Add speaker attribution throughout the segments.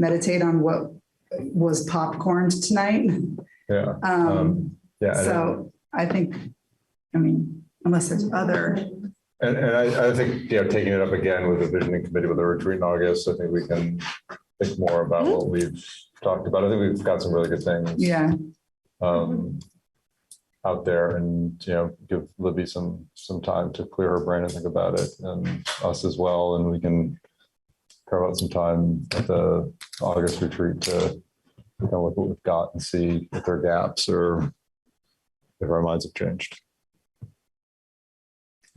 Speaker 1: meditate on what was popcorned tonight.
Speaker 2: Yeah,
Speaker 1: Um,
Speaker 2: yeah. I don't-
Speaker 1: so I think, I mean, unless there's other,
Speaker 2: And, and I, I think, you know, taking it up again with the visioning committee with the retreat in August, I think we can think more about what we've talked about. I think we've got some really good things
Speaker 1: Mm-hmm. yeah,
Speaker 2: um, out there and, you know, give Libby some, some time to clear her brain and think about it and us as well. And we can carve out some time at the August retreat to kind of look what we've got and see if there are gaps or if our minds have changed.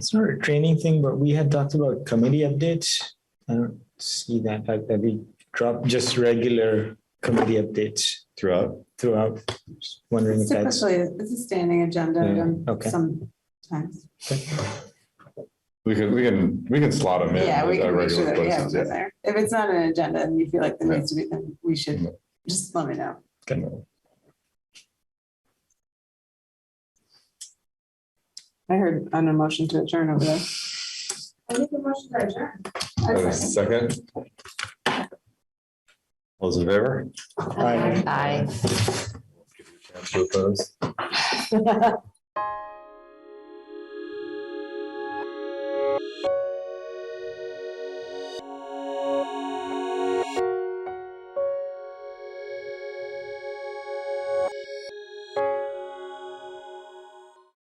Speaker 3: It's not a training thing, but we had talked about committee updates. I don't see that, fact that we drop just regular committee updates
Speaker 2: Throughout.
Speaker 3: throughout. Just Wondering if that's,
Speaker 4: Typically, it's a standing agenda
Speaker 2: Yeah,
Speaker 4: item
Speaker 3: okay.
Speaker 4: sometimes.
Speaker 2: We could, we can, we can slot them in.
Speaker 4: Yeah, we
Speaker 2: at
Speaker 4: can make sure
Speaker 2: regular
Speaker 4: that we have
Speaker 2: places,
Speaker 4: it
Speaker 2: yeah.
Speaker 4: in there. If it's not an agenda and you feel like there
Speaker 2: Yeah.
Speaker 4: needs to be, then we should
Speaker 2: Yeah.
Speaker 4: just let me know. I heard an emotion to adjourn over there.
Speaker 5: I make a motion to adjourn.
Speaker 2: Uh, Second. All Those in favor?
Speaker 3: Aye.
Speaker 2: Chance to oppose?